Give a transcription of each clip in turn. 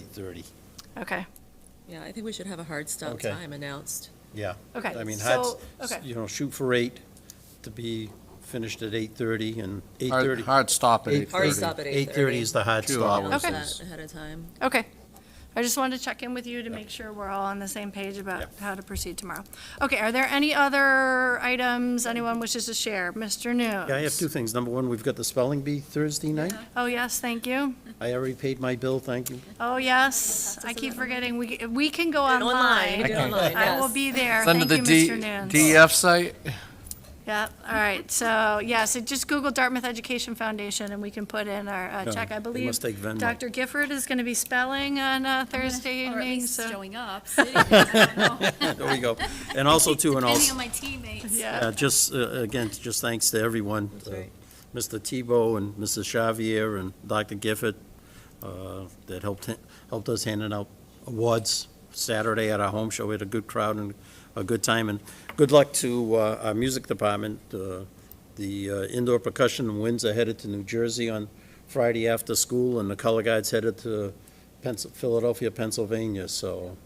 8:30. Okay, Yeah, I think we should have a hard stop Okay. time announced. Yeah. Okay, I mean, so- that's- okay. You know, shoot for 8 to be finished at 8:30 and Hard 8:30. hard stop at 8:30. Hard stop at 8:30. 8:30 is the hard Two stop. hours Okay. That Ahead of time. okay. I just wanted to check in with you to make sure we're all on the same page about Yep. how to proceed tomorrow. Okay, are there any other items anyone wishes to share? Mr. News? Yeah, I have two things. Number one, we've got the spelling bee Thursday night. Oh, yes, thank you. I already paid my bill, thank you. Oh, yes, I keep forgetting, we, we can go And Online, you online. do it online, I will yes. be there, It's under thank the you, D- Mr. E Nunes. DEF site? Yep, all right, so, yeah, so just Google Dartmouth Education Foundation, and we can put in our uh, Yeah, check. I they believe must take Venmo. Dr. Gifford is going to be spelling on uh, Thursday Or at evening, least so. showing up, sitting there, There we go. And also, too, and depending on also, my teammates. Yeah, uh, just, uh, again, just thanks to everyone. uh, right. Mr. Tebow and Mrs. Xavier and Dr. Gifford uh, that helped, ha- helped us handing out awards Saturday at our home show. We had a good crowd and a good time, and good luck to uh, our music department. Uh, The uh, indoor percussion and winds are headed to New Jersey on Friday after school, and the color guides headed to Pens- Philadelphia, Pennsylvania, so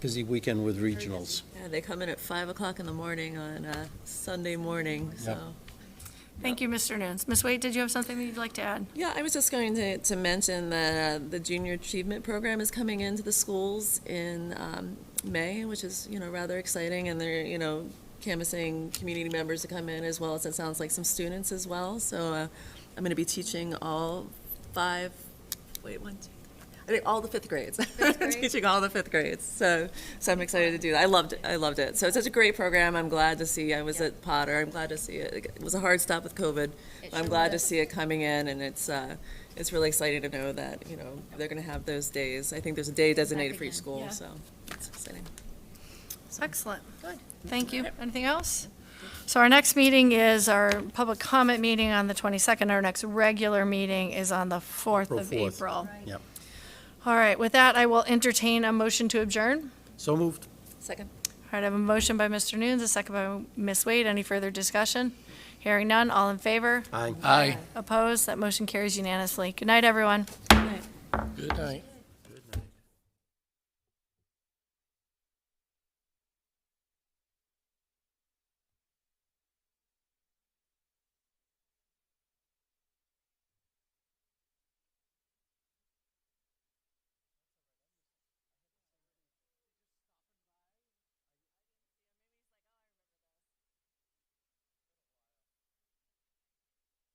busy weekend with regionals. Yeah, they come in at 5 o'clock in the morning on uh, Sunday morning, so. thank you, Mr. Nunes. Ms. Waite, did you have something that you'd like to add? Yeah, I was just going to, to mention that uh, the Junior Achievement Program is coming into the schools in um, May, which is, you know, rather exciting, and they're, you know, canvassing community members to come in as well as, it sounds like, some students as well. So uh, I'm going to be teaching all five, wait, one, two, I think all the fifth grades. Teaching all the fifth grades. So, so I'm excited to do that. I loved it. I loved it. So it's such a great program. I'm glad to see. I was at Potter. I'm glad to see it. It was a hard stop with COVID. but I'm sure glad to was. see it coming in, and it's uh, it's really exciting to know that you know they're going to have those days. I think there's a day designated for each again, school. yeah. So it's exciting. Excellent. Good. Thank you. Anything else? So our next meeting is our public comment meeting on the 22nd. Our next regular meeting is on the 4th April of 4th. April. Yep. All right, with that, I will entertain a motion to adjourn. So moved. Second. All right, I have a motion by Mr. Nunes, a second by Ms. Wade. Any further discussion? Hearing none, all in favor? Aye. Aye. Opposed? That motion carries unanimously. Good night, everyone. Good night.